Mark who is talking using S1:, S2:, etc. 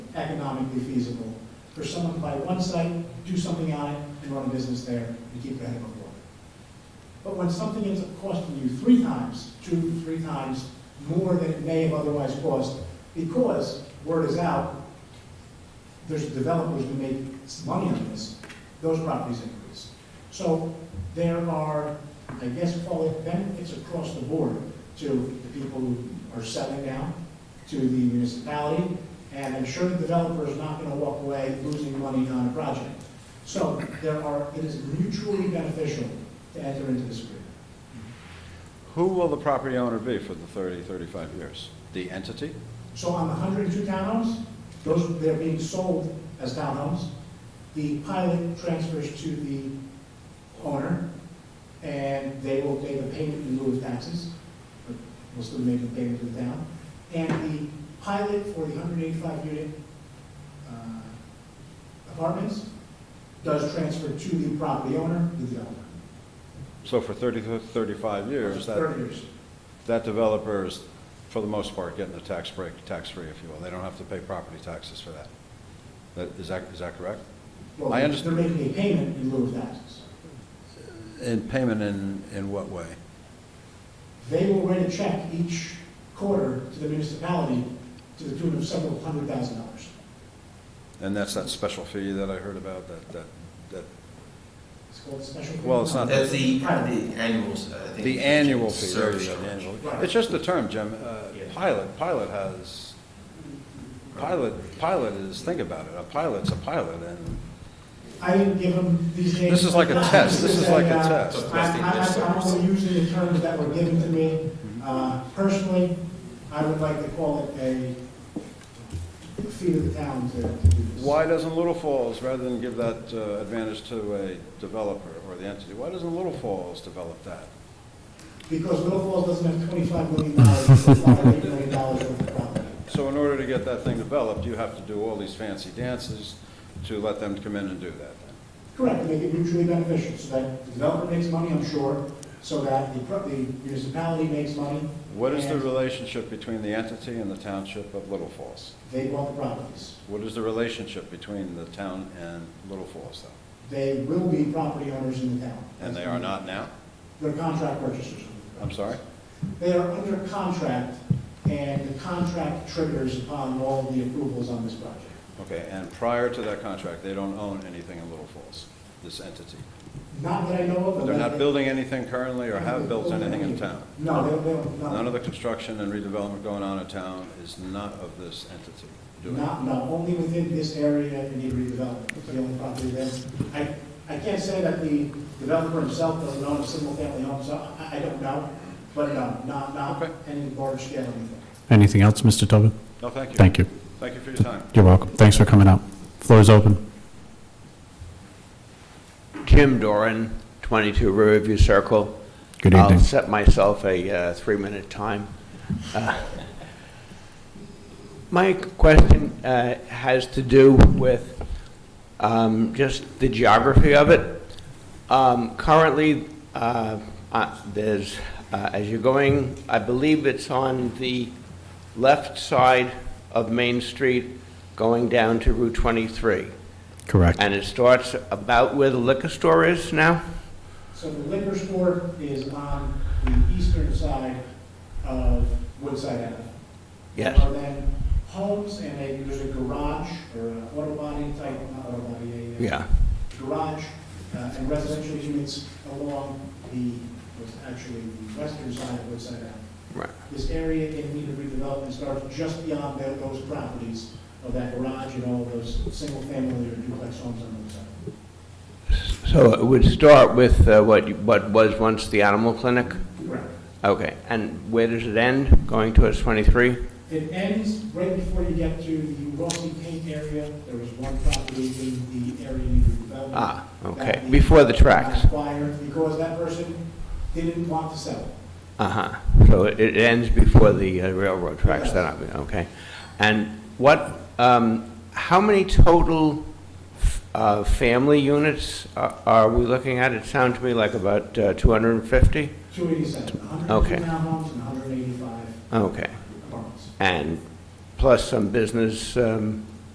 S1: economically feasible for someone to buy one site, do something on it, and run a business there, and keep their head above water. But when something ends up costing you three times, two, three times more than it may have otherwise cost, because word is out, there's developers who make money on this, those properties increase. So there are, I guess, call it benefits across the board to the people who are settling down, to the municipality, and I'm sure the developer is not gonna walk away losing money on a project. So there are, it is mutually beneficial to enter into this agreement.
S2: Who will the property owner be for the 30, 35 years? The entity?
S1: So on the hundred and two townhomes, those, they're being sold as townhomes. The pilot transfers to the owner, and they will pay the payment in lieu of taxes, but will still make the payment to the town. And the pilot for the hundred and eighty-five unit uh, apartments does transfer to the property owner, the developer.
S2: So for 30, to 35 years,
S1: Thirty
S2: that,
S1: years.
S2: that developer is, for the most part, getting a tax break, tax-free, if you will. They don't have to pay property taxes for that. That, is that, is that correct?
S1: Well,
S2: I understand.
S1: They're making a payment in lieu of taxes.
S2: And payment in, in what way?
S1: They will write a check each quarter to the municipality to the tune of several hundred thousand dollars.
S2: And that's that special fee that I heard about, that, that, that,
S1: It's called special.
S2: Well, it's not-
S3: That's the, the
S1: Pilot.
S3: annuals, I think.
S2: the annual fee. there you
S3: Service
S2: go,
S3: charge.
S2: the annual.
S1: Right.
S2: It's just the term, Jim. Uh,
S3: Yeah.
S2: Pilot, pilot has, pilot, pilot is, think about it, a pilot's a pilot, and
S1: I didn't give them these names.
S2: This is like a test. This is like a
S1: uh,
S2: test.
S1: I'm, I'm, I'm only using the terms that were given to me. Uh, Personally, I would like to call it a fee to the town to to do this.
S2: Why doesn't Little Falls, rather than give that uh, advantage to a developer or the entity, why doesn't Little Falls develop that?
S1: Because Little Falls doesn't have twenty-five million dollars, it's not eight million dollars worth of property.
S2: So in order to get that thing developed, you have to do all these fancy dances to let them come in and do that. then.
S1: Correct, make it mutually beneficial, so that the developer makes money, I'm sure, so that the pro- the municipality makes money.
S2: What is the
S1: and
S2: relationship between the entity and the township of Little Falls?
S1: They bought the properties.
S2: What is the relationship between the town and Little Falls, though?
S1: They will be property owners in the town.
S2: And they are not now?
S1: They're contract purchasers.
S2: I'm sorry?
S1: They are under contract, and the contract triggers upon all the approvals on this project.
S2: Okay, and prior to that contract, they don't own anything in Little Falls, this entity?
S1: Not that I know of. but
S2: They're
S1: that-
S2: not building anything currently or have built anything in town?
S1: No, they don't, they don't. no.
S2: None of the construction and redevelopment going on in town is not of this entity doing it.
S1: Not, no, only within this area in the redevelopment, It's the only property that, I, I can't say that the developer himself doesn't own a single-family home, so I, I don't know, but no, not, not
S2: Okay.
S1: any large scale anything.
S4: Anything else, Mr. Tobin?
S2: No, thank you.
S4: Thank you.
S2: Thank you for your time.
S4: You're welcome. Thanks for coming out. Floor is open.
S5: Tim Doran, 22 Riverview Circle.
S4: Good
S5: I'll
S4: evening.
S5: set myself a uh, three-minute time. Uh, My question uh, has to do with um, just the geography of it. Um, Currently, uh, uh, there's, uh, as you're going, I believe it's on the left side of Main Street going down to Route 23.
S4: Correct.
S5: And it starts about where the liquor store is now?
S1: So the liquor store is on the eastern side of Woodside Avenue.
S5: Yes.
S1: There Are then homes and a, there's a garage or an auto body type, not auto body, a. uh,
S5: Yeah.
S1: garage uh, and residential units along the, what's actually the western side of Woodside Avenue.
S5: Right.
S1: This area in need of redevelopment starts just beyond tho- those properties of that garage and all those single-family or duplex homes on the other side.
S5: So it would start with uh, what, you- what was once the animal clinic?
S1: Correct.
S5: Okay, and where does it end, going towards 23?
S1: It ends right before you get to the Rossi Paint area. There was one property in the area in redevelopment.
S5: Ah, okay,
S1: that the-
S5: before the tracks.
S1: Acquired because that person didn't want to sell it.
S5: Uh-huh, so it it ends before the uh, railroad tracks, then, I- okay. And what, um, how many total f- uh, family units a- are we looking at? It sounds to me like about uh, 250?
S1: 287,
S5: Okay.
S1: 102 townhomes and 185
S5: Okay.
S1: apartments.
S5: and plus some business um,